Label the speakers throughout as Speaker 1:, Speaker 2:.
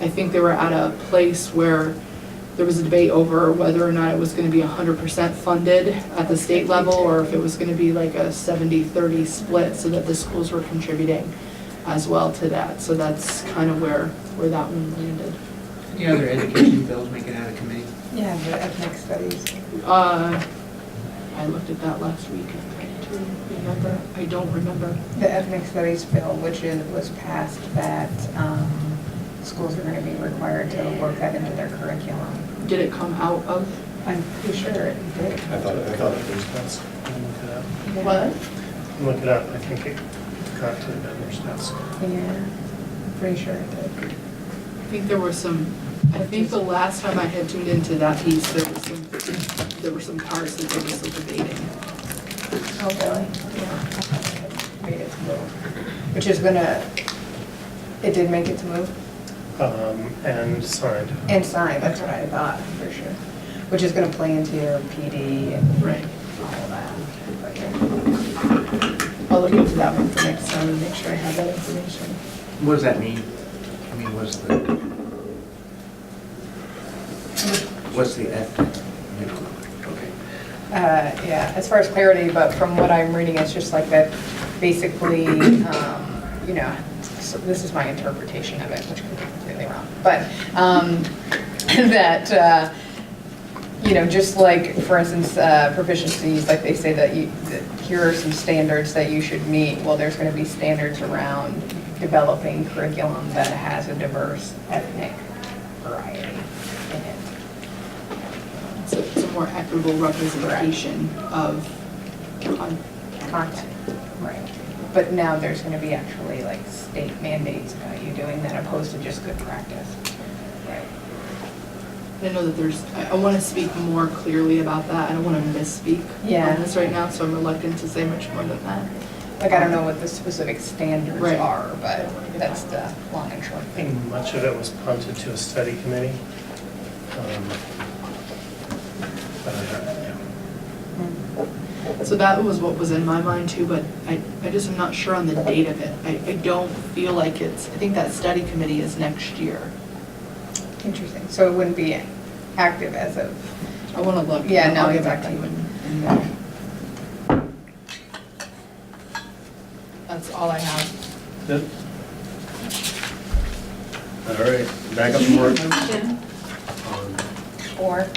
Speaker 1: I think they were at a place where there was a debate over whether or not it was gonna be hundred percent funded at the state level, or if it was gonna be like a 70-30 split, so that the schools were contributing as well to that, so that's kind of where, where that one landed.
Speaker 2: Any other education bills make it out of committee?
Speaker 3: Yeah, the ethnic studies.
Speaker 1: Uh, I looked at that last week, I can't remember, I don't remember.
Speaker 3: The ethnic studies bill, which is, was passed that um, schools are going to be required to work that into their curriculum.
Speaker 1: Did it come out of?
Speaker 3: I'm pretty sure it did.
Speaker 4: I thought, I thought it was, that's, I'm looking it up. I'm looking it up, I think it got to the vendors, that's.
Speaker 3: Yeah, I'm pretty sure it did.
Speaker 1: I think there were some, I think the last time I had tuned into that piece, there was some, there were some parts that they were still debating.
Speaker 3: Oh, really?
Speaker 1: Yeah.
Speaker 3: Yeah. Made it to move, which is gonna, it did make it to move
Speaker 4: Um, and signed.
Speaker 3: and signed, that's what I thought, for sure. Which is gonna play into your PD and
Speaker 1: Right.
Speaker 3: all that. But, yeah.
Speaker 1: I'll look into that one for next time and make sure I have that information.
Speaker 2: What does that mean? I mean, what's the, what's the ethnic? Okay.
Speaker 3: Uh, Yeah, as far as clarity, but from what I'm reading, it's just like that, basically, um, you know, so this is my interpretation of it, which could be completely wrong, but um, that, uh, you know, just like, for instance, uh, proficiencies, like they say that you, that here are some standards that you should meet, well, there's going to be standards around developing curriculum that has a diverse ethnic variety in it.
Speaker 1: So it's a more equitable representation of, um,
Speaker 3: content. Right. But now there's going to be actually like state mandates about you doing that opposed to just good practice. Right.
Speaker 1: I know that there's, I, I wanna speak more clearly about that, I don't wanna misspeak
Speaker 3: Yeah.
Speaker 1: on this right now, so I'm reluctant to say much more than that.
Speaker 3: Like, I don't know what the specific standards
Speaker 1: Right.
Speaker 3: are, but that's the long and short
Speaker 4: I
Speaker 3: thing.
Speaker 4: think much of it was punted to a study committee. Um, but I don't- yeah.
Speaker 1: Mm-hmm. Um, So that was what was in my mind too, but I, I just am not sure on the date of it. I, I don't feel like it's, I think that study committee is next year.
Speaker 3: Interesting. So it wouldn't be active as of,
Speaker 1: I wanna look.
Speaker 3: Yeah, no,
Speaker 1: I'll get back to you
Speaker 3: exactly.
Speaker 1: in, in May. That's all I have.
Speaker 5: Good. All right, back up to work.
Speaker 6: Motion,
Speaker 5: Um,
Speaker 3: or,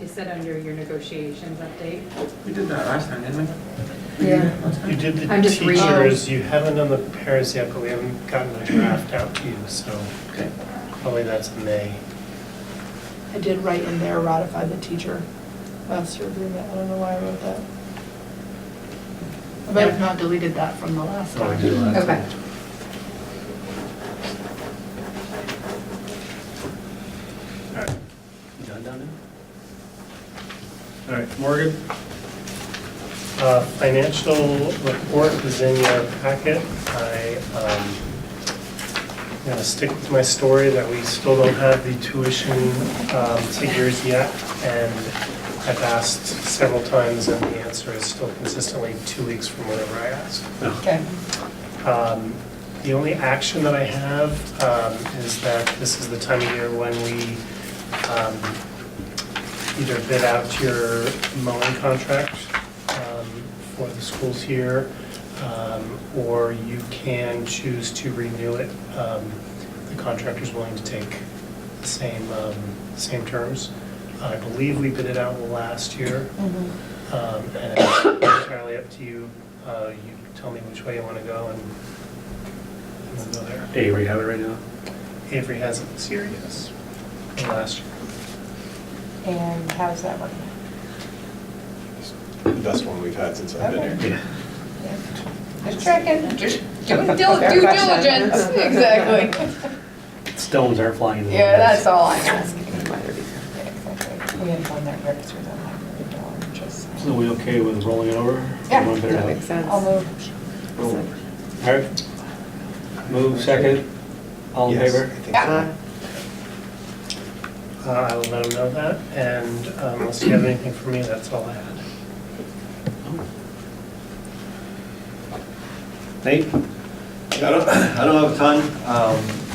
Speaker 6: is said under your negotiations update.
Speaker 2: We did that last time, didn't we?
Speaker 3: Yeah.
Speaker 2: Last time?
Speaker 4: You did the
Speaker 6: I'm just reading.
Speaker 4: teachers, you haven't done the parents yet, but we haven't gotten a draft out to you, so
Speaker 2: Okay.
Speaker 4: probably that's May.
Speaker 1: I did write in there, ratify the teacher master agreement. I don't know why I wrote that. I might have not deleted that from the last
Speaker 5: Oh, we
Speaker 1: time.
Speaker 5: did last
Speaker 3: Okay.
Speaker 5: time. All right. You done down there? All right, Morgan?
Speaker 4: Uh, Financial report is in your packet. I, um, I'm gonna stick with my story that we still don't have the tuition um, figures yet. And I've asked several times and the answer is still consistently two weeks from whenever I asked.
Speaker 3: okay.
Speaker 4: Um, The only action that I have um, is that this is the time of year when we um, either bid out your mowing contract um, for the schools here, um, or you can choose to renew it. Um, The contractor's willing to take the same, um, same terms. I believe we bid it out last year.
Speaker 1: Mm-hmm.
Speaker 4: Um, And it's entirely up to you. Uh, You tell me which way you want to go and and we'll go there.
Speaker 5: Avery, have it right now?
Speaker 4: Avery has it this year, yes. And Last year.
Speaker 3: And how's that working?
Speaker 7: the best one we've had since I've been here.
Speaker 5: Yeah.
Speaker 3: Just checking, just doing dil- due diligence, exactly.
Speaker 5: Stones aren't flying. in the
Speaker 3: Yeah,
Speaker 5: windows.
Speaker 3: that's all I'm asking. Yeah, exactly. We had one that ripped through the library door, just.
Speaker 5: So we okay with rolling it over?
Speaker 3: Yeah.
Speaker 5: Everyone better have it.
Speaker 3: I'll move.
Speaker 5: Roll. All right. Move second. All in
Speaker 7: Yes,
Speaker 5: favor?
Speaker 7: I think so.
Speaker 3: Yeah.
Speaker 4: Uh, I will let him know that, and um, unless you have anything for me, that's all I had.
Speaker 5: Nate?
Speaker 8: I don't, I don't have a ton. Um,